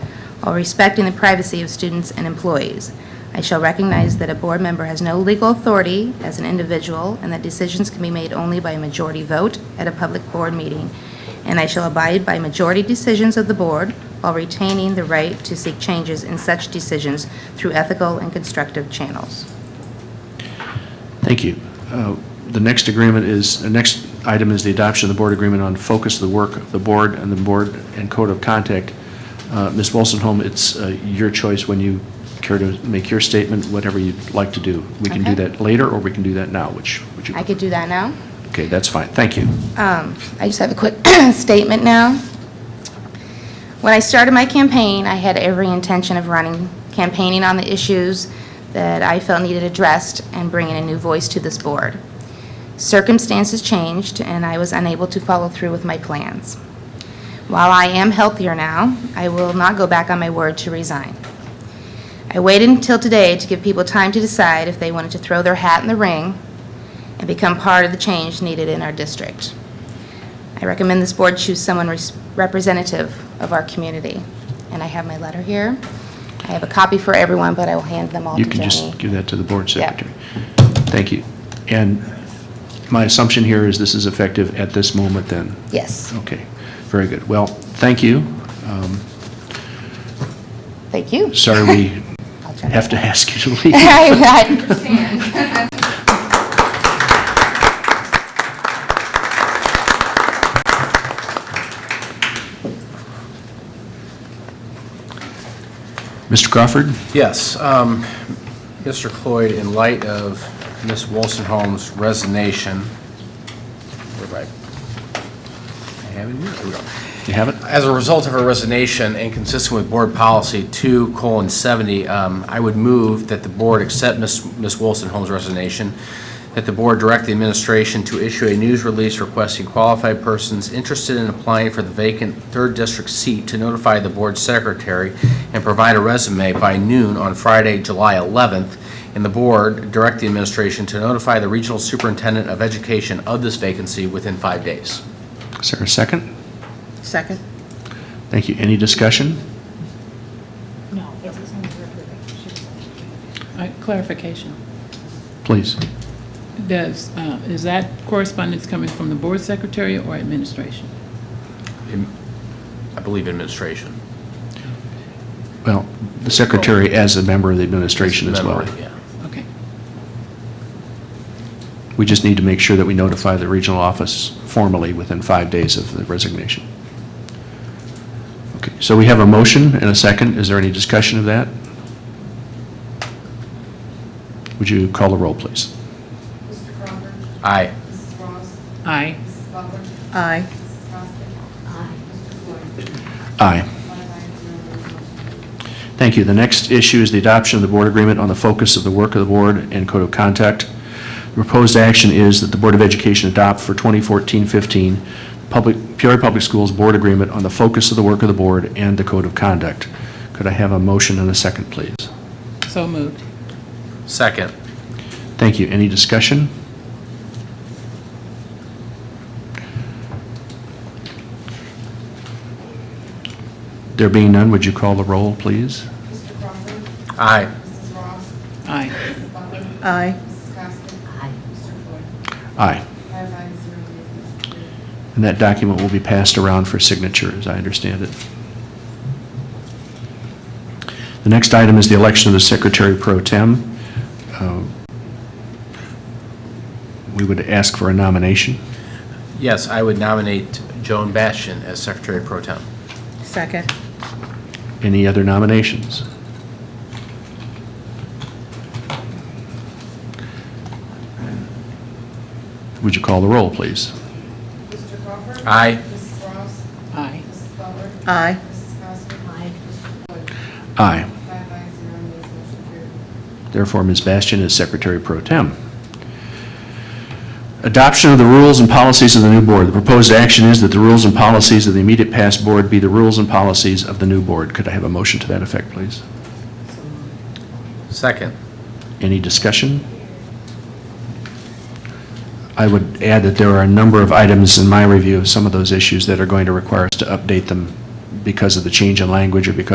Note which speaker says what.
Speaker 1: while respecting the privacy of students and employees. I shall recognize that a board member has no legal authority as an individual and that decisions can be made only by a majority vote at a public board meeting, and I shall abide by majority decisions of the board while retaining the right to seek changes in such decisions through ethical and constructive channels.
Speaker 2: Thank you. Uh, The next agreement is, the next item is the adoption of the board agreement on focus of the work of the board and the board and code of contact. Uh, Ms. Wolstenholme, it's uh, your choice when you care to make your statement, whatever you'd like to do. We can do
Speaker 1: Okay.
Speaker 2: that later, or we can do that now, which, which you...
Speaker 1: I could do that now?
Speaker 2: Okay, that's fine. Thank you.
Speaker 1: I just have a quick statement now. When I started my campaign, I had every intention of running, campaigning on the issues that I felt needed addressed and bringing a new voice to this board. Circumstances changed, and I was unable to follow through with my plans. While I am healthier now, I will not go back on my word to resign. I waited until today to give people time to decide if they wanted to throw their hat in the ring and become part of the change needed in our district. I recommend this board choose someone res- representative of our community. And I have my letter here. I have a copy for everyone, but I will hand them all to
Speaker 2: You
Speaker 1: Jenny.
Speaker 2: can just give that to the board
Speaker 1: Yeah.
Speaker 2: secretary. Thank you. And my assumption here is this is effective at this moment, then?
Speaker 1: Yes,
Speaker 2: Okay, very good. Well, thank you. Um,
Speaker 1: thank you.
Speaker 2: Sorry we
Speaker 1: I'll try.
Speaker 2: have to ask you to leave.
Speaker 1: I understand.
Speaker 2: Mr. Crawford?
Speaker 3: Yes, um, Mr. Cloyd, in light of Ms. Wolstenholme's resignation, where am I? I have it here. Here we go.
Speaker 2: You have it?
Speaker 3: As a result of her resignation and consistent with Board Policy 2:70, um, I would move that the Board accept Ms. Ms. Wilson Holmes' resignation, that the Board direct the administration to issue a news release requesting qualified persons interested in applying for the vacant Third District seat to notify the Board Secretary and provide a resume by noon on Friday, July 11th, and the Board direct the administration to notify the Regional Superintendent of Education of this vacancy within five days.
Speaker 2: Is there a second?
Speaker 1: Second.
Speaker 2: Thank you. Any discussion?
Speaker 4: Uh, Clarification.
Speaker 2: Please.
Speaker 4: Does, uh, is that correspondence coming from the board secretary or administration?
Speaker 3: I believe administration.
Speaker 2: Well, the secretary as a member of the administration as well.
Speaker 3: Memory, yeah.
Speaker 4: Okay.
Speaker 2: We just need to make sure that we notify the regional office formally within five days of the resignation. Okay, so we have a motion and a second. Is there any discussion of that? Would you call the roll, please?
Speaker 5: Mr. Crawford.
Speaker 3: Aye.
Speaker 5: Mrs. Ross.
Speaker 4: Aye.
Speaker 5: Mrs. Butler.
Speaker 4: Aye.
Speaker 5: Mrs. Costa. Aye. Mr. Floyd.
Speaker 2: Aye.
Speaker 5: Five ayes, zero noes.
Speaker 2: Thank you. The next issue is the adoption of the board agreement on the focus of the work of the board and code of conduct. The Proposed action is that the Board of Education adopt for 2014-15 Public, Peoria Public Schools Board Agreement on the focus of the work of the board and the code of conduct. Could I have a motion and a second, please?
Speaker 4: So moved.
Speaker 3: Second.
Speaker 2: Thank you. Any discussion? There being none, would you call the roll, please?
Speaker 5: Mr. Crawford.
Speaker 3: Aye.
Speaker 5: Mrs. Ross.
Speaker 4: Aye.
Speaker 5: Mrs. Butler.
Speaker 4: Aye.
Speaker 5: Mrs. Costa. Aye. Mr. Floyd.
Speaker 2: Aye.
Speaker 5: Five ayes, zero nays. Mr. Chair.
Speaker 2: And that document will be passed around for signature, as I understand it. The next item is the election of the Secretary Pro Tem. Uh, We would ask for a nomination.
Speaker 3: Yes, I would nominate Joan Bastian as Secretary Pro Tem.
Speaker 4: Second.
Speaker 2: Any other nominations? Would you call the roll, please?
Speaker 5: Mr. Crawford.
Speaker 3: Aye.
Speaker 5: Mrs. Ross.
Speaker 4: Aye.
Speaker 5: Mrs. Butler.
Speaker 4: Aye.
Speaker 5: Mrs. Costa. Aye. Mr. Floyd.
Speaker 2: Aye.
Speaker 5: Five ayes, zero nays. Motion carried.
Speaker 2: Therefore, Ms. Bastian is Secretary Pro Tem. Adoption of the rules and policies of the new board. The proposed action is that the rules and policies of the immediate past board be the rules and policies of the new board. Could I have a motion to that effect, please?
Speaker 3: Second.
Speaker 2: Any discussion? I would add that there are a number of items in my review of some of those issues that are going to require us to update them because of the change in language or because